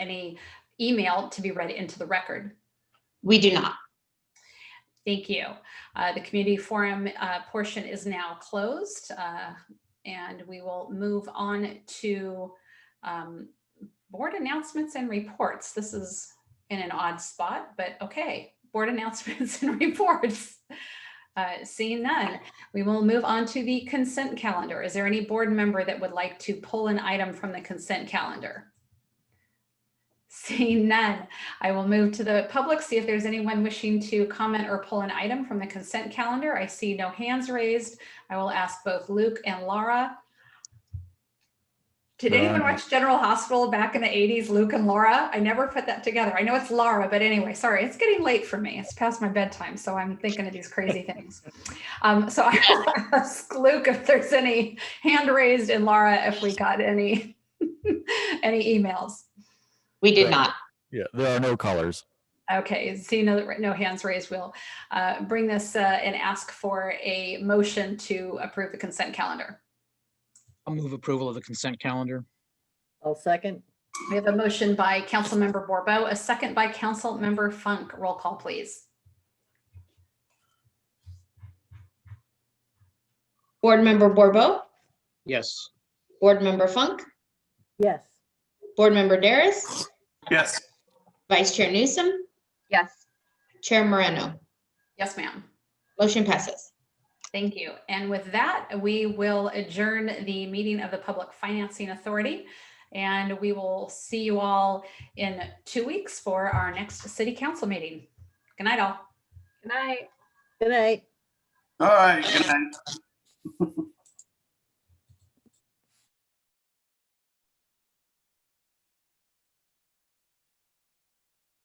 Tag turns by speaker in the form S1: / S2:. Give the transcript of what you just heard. S1: any email to be read into the record.
S2: We do not.
S1: Thank you. Uh, The community forum uh, portion is now closed. uh, And we will move on to um, board announcements and reports. This is in an odd spot, but okay, board announcements and reports. Uh, Seeing none, we will move on to the consent calendar. Is there any board member that would like to pull an item from the consent calendar? Seeing none, I will move to the public, see if there's anyone wishing to comment or pull an item from the consent calendar. I see no hands raised. I will ask both Luke and Laura. Did anyone
S3: Uh,
S1: watch General Hospital back in the 80s, Luke and Laura? I never put that together. I know it's Laura, but anyway, sorry, it's getting late for me. It's past my bedtime, so I'm thinking of these crazy things. Um, So I will ask Luke if there's any hand raised and Laura if we got any, any emails.
S2: We did
S3: Right.
S2: not.
S3: Yeah, there are no colors.
S1: Okay, seeing no, no hands raised, we'll uh, bring this uh, and ask for a motion to approve the consent calendar.
S4: I'll move approval of the consent calendar.
S5: I'll second.
S1: We have a motion by Councilmember Borbo, a second by Councilmember Funk. Roll call, please.
S2: Board Member Borbo,
S4: Yes.
S2: Board Member Funk,
S5: Yes.
S2: Board Member Daris,
S6: Yes.
S2: Vice Chair Newsom,
S7: Yes.
S2: Chair Moreno.
S1: Yes, ma'am.
S2: Motion passes.
S1: Thank you. And with that, we will adjourn the meeting of the Public Financing Authority. And we will see you all in two weeks for our next city council meeting. Good night, all.
S7: Good night.
S5: Good night.
S6: All right. Good night.